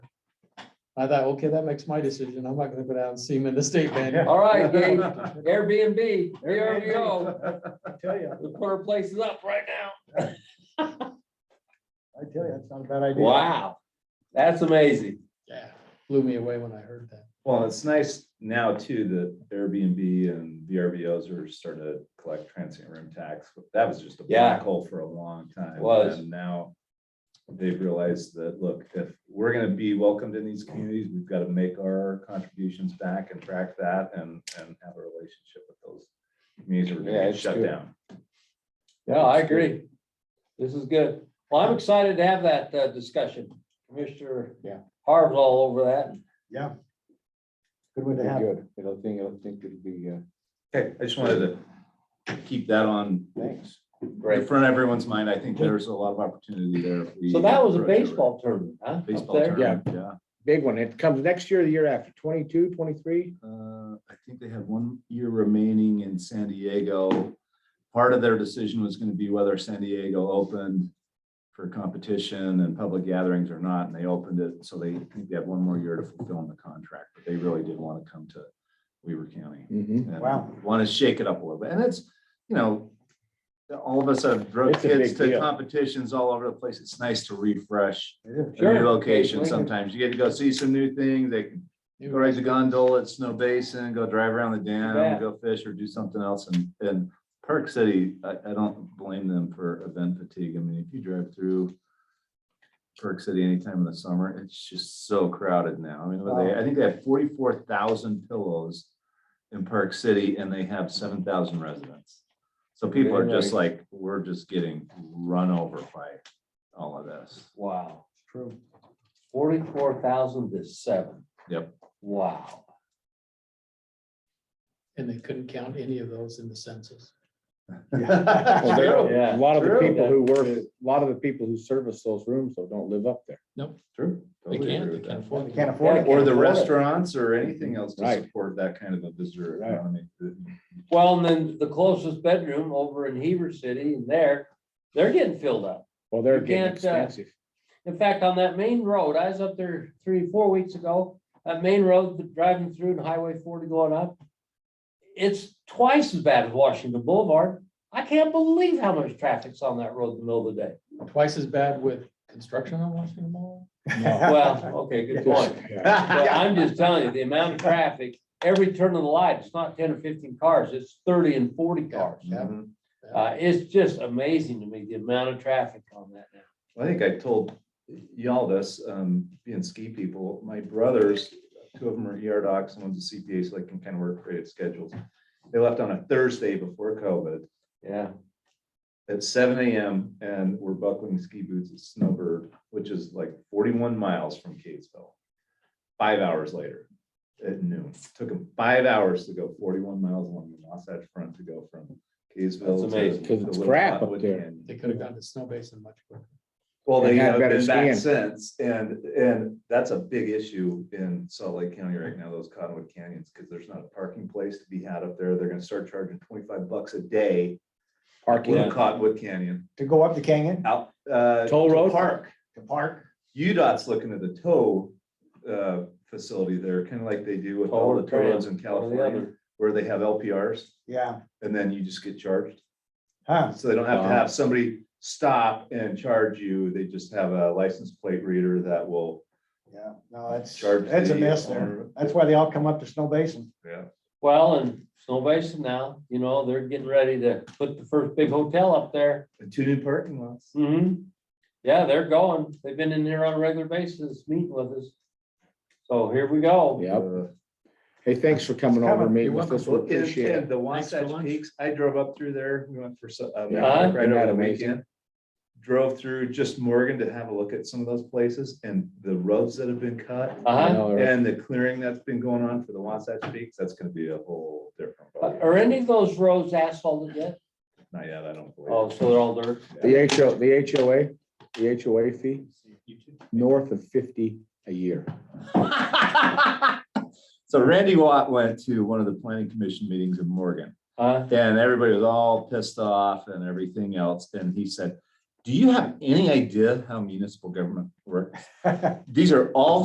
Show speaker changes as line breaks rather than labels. I thought, okay, that makes my decision. I'm not gonna go down and see him in the state bank.
All right, Gabe, Airbnb, there we go.
I tell you,
We put our places up right now.
I tell you, that's not a bad idea.
Wow, that's amazing.
Yeah, blew me away when I heard that.
Well, it's nice now too that Airbnb and VRBOs are starting to collect transient room tax. That was just a
Yeah.
black hole for a long time.
It was.
And now they've realized that, look, if we're gonna be welcomed in these communities, we've got to make our contributions back and track that and, and have a relationship with those communities that are
Yeah,
gonna get
it's
shut
good.
down.
Yeah, I agree. This is good. Well, I'm excited to have that uh, discussion. Commissioner
Yeah.
Harv's all over that.
Yeah. Good way to have it.
Good, I don't think, I don't think it'd be, uh,
Okay, I just wanted to keep that on
thanks.
in front of everyone's mind. I think there's a lot of opportunity there. if we
So that was a
approach it right.
baseball tournament, huh? up
Baseball
there?
tournament, yeah.
Big one, it comes next year, or the year after, 22, 23.
Uh, I think they have one year remaining in San Diego. Part of their decision was gonna be whether San Diego opened for competition and public gatherings or not, and they opened it, so they think they have one more year to fulfill the contract, but they really did wanna come to Weaver County.
Mm-hmm.
Mhm.
Wow.
Want to shake it up a little bit. And it's, you know, all of us have drug
It's a
kids
big
to
deal.
competitions all over the place. It's nice to refresh
It
a new
Sure.
location sometimes. You get to go see some new things. They can go ride the gondola at Snow Basin, go drive around the
Yeah.
dam, go fish or do something else. And, and Park City, I, I don't blame them for event fatigue. I mean, if you drive through Park City any time in the summer, it's just so crowded now. I mean, what they, I think they have forty-four thousand pillows in Park City and they have seven thousand residents. So people are just like, we're just getting run over by all of this.
Wow,
is True.
forty-four thousand to seven.
Yep.
Wow.
And they couldn't count any of those in the census.
Well, there
Yeah.
True. Yeah,
are A lot of the
true.
people who work, a lot of the people who service those rooms, though, don't live up there.
True.
They
Totally
can't,
agree
they can't
with that.
afford
You
it.
Can't afford it.
Or the
afford it.
restaurants or anything else to
Right.
support that kind of a visitor
Right.
economy.
Well, and then the closest bedroom over in Heber City and there, they're getting filled up.
Well, they're
You can't,
getting
uh,
expensive.
In fact, on that main road, I was up there three, four weeks ago, that main road, driving through and Highway forty going up. It's twice as bad as Washington Boulevard. I can't believe how much traffic's on that road in the middle of the day.
Twice as bad with construction on Washington Mall.
Well, okay, good point.
Yeah.
But I'm just telling you, the amount of traffic, every turn of the light, it's not ten or fifteen cars, it's thirty and forty cars.
Yeah.
Uh, it's just amazing to me, the amount of traffic on that now.
I think I told y'all this, um, being ski people, my brothers, two of them are ER docs, and one's a CPA, so they can kind of work creative schedules. They left on a Thursday before COVID
Yeah,
at seven AM and were buckling ski boots at Snowbird, which is like forty-one miles from Kaysville. Five hours later at noon, took them five hours to go forty-one miles along the Wasatch Front to go from Kaysville.
That's
to-
amazing.
'Cause
to
it's
Little
crap up
Cottonwood
there.
Canyon.
They could have gone to Snow Basin much quicker.
Well, they
And had
have
better
been back
skiing.
since, and, and that's a big issue in Salt Lake County right now, those Cottonwood Canyons, because there's not a parking place to be had up there. They're gonna start charging twenty-five bucks a day
Parking,
in Cottonwood Canyon
To go up the canyon,
out, uh.
Toll
to
road?
Park.
to park,
UDOT's looking at the tow uh, facility there, kind of like they do with all the tow roads in
Toll and tram, one or
California, where
the
they have LPRs,
yeah,
and then you just get charged.
huh,
So they don't have to
Wow.
have somebody stop and charge you, they just have a license plate reader that will
yeah, no, that's,
charge.
that's a
the
mess there.
owner.
That's why they all come up to Snow Basin.
Yeah,
Well, and Snow Basin now, you know, they're getting ready to put the first big hotel up there.
and two new parking lots.
Mm-hmm. Yeah, they're going. They've been in here on a regular basis, meeting with us. So here we go.
yeah.
Uh,
Hey, thanks for coming
Coming.
over, and meeting
You're
with us, we
Well, and-
appreciate
and
it.
The
Thanks
Wasatch
for lunch.
Peaks, I drove up through there, we went for so- a
Yeah,
mountain bike right
isn't that
over the
amazing?
weekend. Drove through just Morgan to have a look at some of those places and the roads that have been cut
I
Uh-huh.
know, right?
and uh, the clearing that's been going on for the Wasatch Peaks, that's gonna be a whole different. ballgame.
Are any of those roads asphalted yet?
Not yet, I don't believe.
Oh, so they're all dirt.
The HO, the HOA, the HOA fee, north of fifty a year.
So Randy Watt went to one of the planning commission meetings in Morgan.
Huh?
And everybody was all pissed off and everything else. And he said, do you have any idea how municipal government works? These are all